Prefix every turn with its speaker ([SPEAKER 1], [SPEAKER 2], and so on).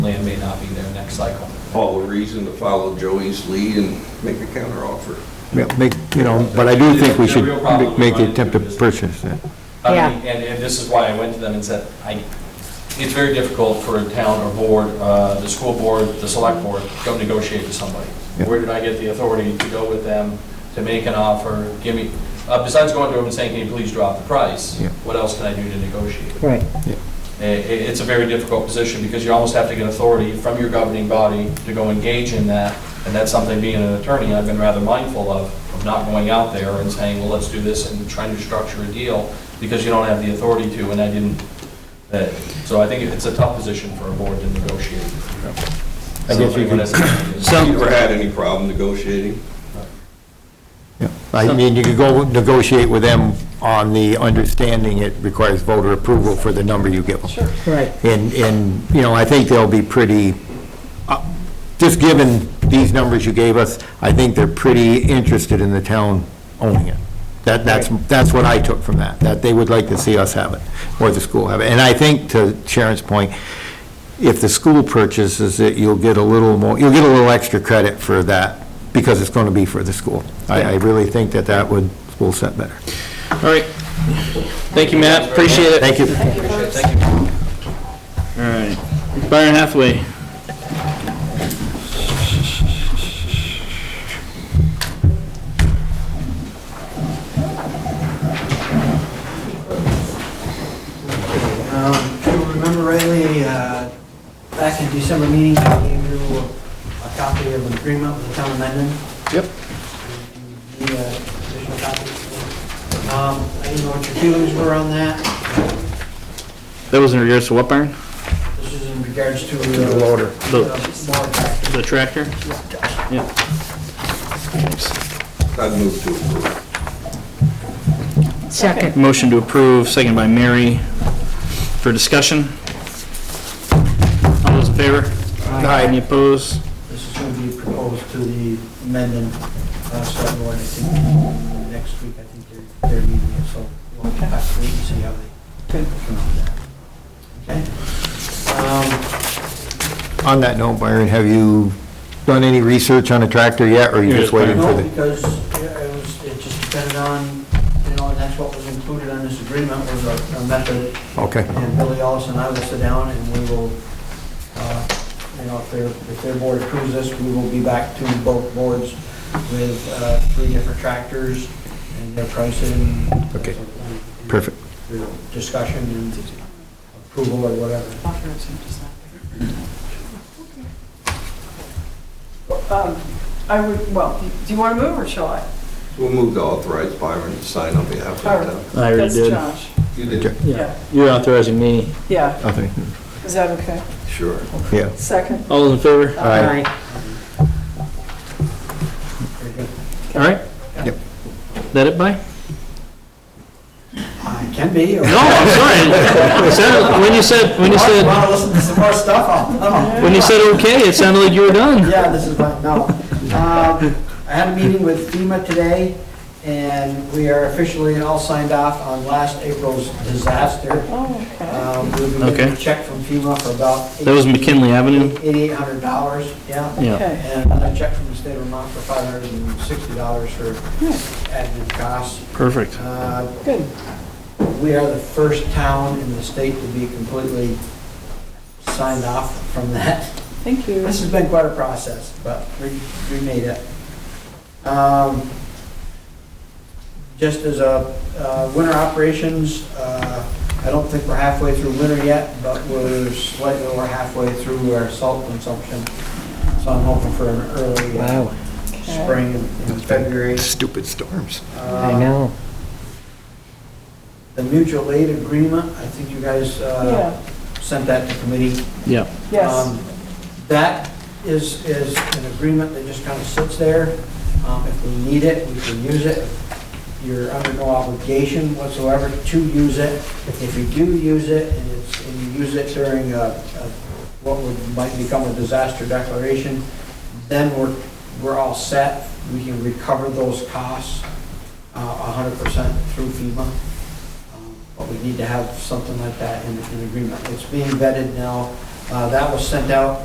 [SPEAKER 1] not be there next cycle.
[SPEAKER 2] all the reason to follow Joey's lead and make a counteroffer.
[SPEAKER 3] Yeah, make, you know, but I do think we
[SPEAKER 1] The
[SPEAKER 3] should
[SPEAKER 1] real problem we
[SPEAKER 3] make
[SPEAKER 1] run
[SPEAKER 3] the
[SPEAKER 1] into
[SPEAKER 3] attempt to
[SPEAKER 1] is-
[SPEAKER 3] purchase it.
[SPEAKER 1] I
[SPEAKER 4] Yeah.
[SPEAKER 1] mean, and, and this is why I went to them and said, I, it's very difficult for a town or board, uh, the school board, the select board, go negotiate with somebody.
[SPEAKER 3] Yeah.
[SPEAKER 1] Where did I get the authority to go with them, to make an offer, give me, uh, besides going to them and saying, can you please drop the price?
[SPEAKER 3] Yeah.
[SPEAKER 1] What else can I do to negotiate?
[SPEAKER 4] Right.
[SPEAKER 1] I- i it's a very difficult position because you almost have to get authority from your governing body to go engage in that. And that's something, being an attorney, I've been rather mindful of, of not going out there and saying, well, let's do this and trying to structure a deal because you don't have the authority to, and I didn't. uh, So I think it's a tough position for a board to negotiate.
[SPEAKER 3] I guess you could-
[SPEAKER 2] Have you ever had any problem negotiating?
[SPEAKER 3] Yeah. I mean, you could go negotiate with them on the understanding it requires voter approval for the number you give them. Sure.
[SPEAKER 4] Right.
[SPEAKER 3] And, and, you know, I think they'll be pretty, uh, just given these numbers you gave us, I think they're pretty interested in the town owning it. That, that's, that's what I took from that, that they would like to see us have it, or the school have it. And I think, to Sharon's point, if the school purchases it, you'll get a little more, you'll get a little extra credit for that, because it's going to be for the school. I, I really think that that would, will set better.
[SPEAKER 5] All right. Thank you, Matt. Appreciate it.
[SPEAKER 3] Thank you.
[SPEAKER 5] All right. Byron Hathaway.
[SPEAKER 6] Um, If you remember rightly, uh, back in December meeting, I gave you a copy of an agreement with the town of Mendon.
[SPEAKER 5] Yep.
[SPEAKER 6] Need a additional copy? Um, I didn't know what your feelings were on that.
[SPEAKER 5] That was in regards to what, Byron?
[SPEAKER 6] This is in regards to.
[SPEAKER 3] The loader.
[SPEAKER 6] uh, Loader.
[SPEAKER 5] The tractor?
[SPEAKER 2] I'd move to approve.
[SPEAKER 4] Second.
[SPEAKER 5] Motion to approve, second by Mary. For discussion? All those in favor?
[SPEAKER 3] Aye.
[SPEAKER 5] Any opposed?
[SPEAKER 6] This is going to be proposed to the Mendon uh, Select Board, I think, next week, I think they're, they're meeting it, so we'll have to wait and see how they. Good. Okay? Um,
[SPEAKER 3] On that note, Byron, have you done any research on a tractor yet, or are you just waiting for
[SPEAKER 6] No,
[SPEAKER 3] the?
[SPEAKER 6] because yeah, it was, it just depended on, you know, and that's what was included on this agreement was a a method
[SPEAKER 3] Okay,
[SPEAKER 6] And Billy Ellis and I will sit down and we will, uh, you know, if their, if their board approves this, we will be back to both boards with uh, three different tractors and their pricing.
[SPEAKER 3] Okay. perfect.
[SPEAKER 6] Their Discussion and approval or whatever.
[SPEAKER 7] Um, I would, well, do you want to move or shall I?
[SPEAKER 2] We'll move to authorize Byron to sign on behalf of the town.
[SPEAKER 5] I already
[SPEAKER 7] That's
[SPEAKER 5] did.
[SPEAKER 7] Josh.
[SPEAKER 2] You did?
[SPEAKER 7] Yeah.
[SPEAKER 5] You're authorizing me.
[SPEAKER 7] Yeah,
[SPEAKER 3] Okay.
[SPEAKER 7] is that okay?
[SPEAKER 2] Sure.
[SPEAKER 3] Yeah.
[SPEAKER 7] Second?
[SPEAKER 5] All those in favor?
[SPEAKER 3] Aye.
[SPEAKER 6] Very good.
[SPEAKER 5] All right?
[SPEAKER 3] Yep.
[SPEAKER 5] That it, By?
[SPEAKER 6] Uh, it Can be. or-
[SPEAKER 5] No, I'm sorry. It sounded- When you said, when you
[SPEAKER 6] If you
[SPEAKER 5] said,
[SPEAKER 6] Want to listen to some more stuff? I'll- I'll-
[SPEAKER 5] when you said okay, it sounded like you were done.
[SPEAKER 6] Yeah, this is my, no. Um, I had a meeting with FEMA today, and we are officially all signed off on last April's disaster.
[SPEAKER 7] Oh, okay.
[SPEAKER 6] Um, We've been getting a
[SPEAKER 5] Okay.
[SPEAKER 6] check from FEMA for about
[SPEAKER 5] That was McKinley Avenue?
[SPEAKER 6] eighty-eight hundred dollars, yeah.
[SPEAKER 5] Yeah.
[SPEAKER 7] Okay.
[SPEAKER 6] And another check from the state of Vermont for five hundred and sixty dollars for admin costs.
[SPEAKER 5] Perfect.
[SPEAKER 6] Uh,
[SPEAKER 7] Good.
[SPEAKER 6] we are the first town in the state to be completely signed off from that.
[SPEAKER 7] Thank you.
[SPEAKER 6] This has been quite a process, but we, we made it. Um, Just as a, uh, winter operations, uh, I don't think we're halfway through winter yet, but we're slightly over halfway through our salt consumption. So I'm hoping for an early uh, spring in in February.
[SPEAKER 3] Stupid storms.
[SPEAKER 6] I know. The mutual aid agreement, I think you guys uh,
[SPEAKER 7] Yeah,
[SPEAKER 6] sent that to committee.
[SPEAKER 5] Yeah.
[SPEAKER 7] yes.
[SPEAKER 6] Um, That is, is an agreement that just kind of sits there. Um, If we need it, we can use it. You're under no obligation whatsoever to use it. If you do use it, and it's, and you use it during a, a- what would, might become a disaster declaration, then we're, we're all set. We can recover those costs uh, a hundred percent through FEMA. Um, But we need to have something like that in, in agreement. It's being vetted now. Uh, That was sent out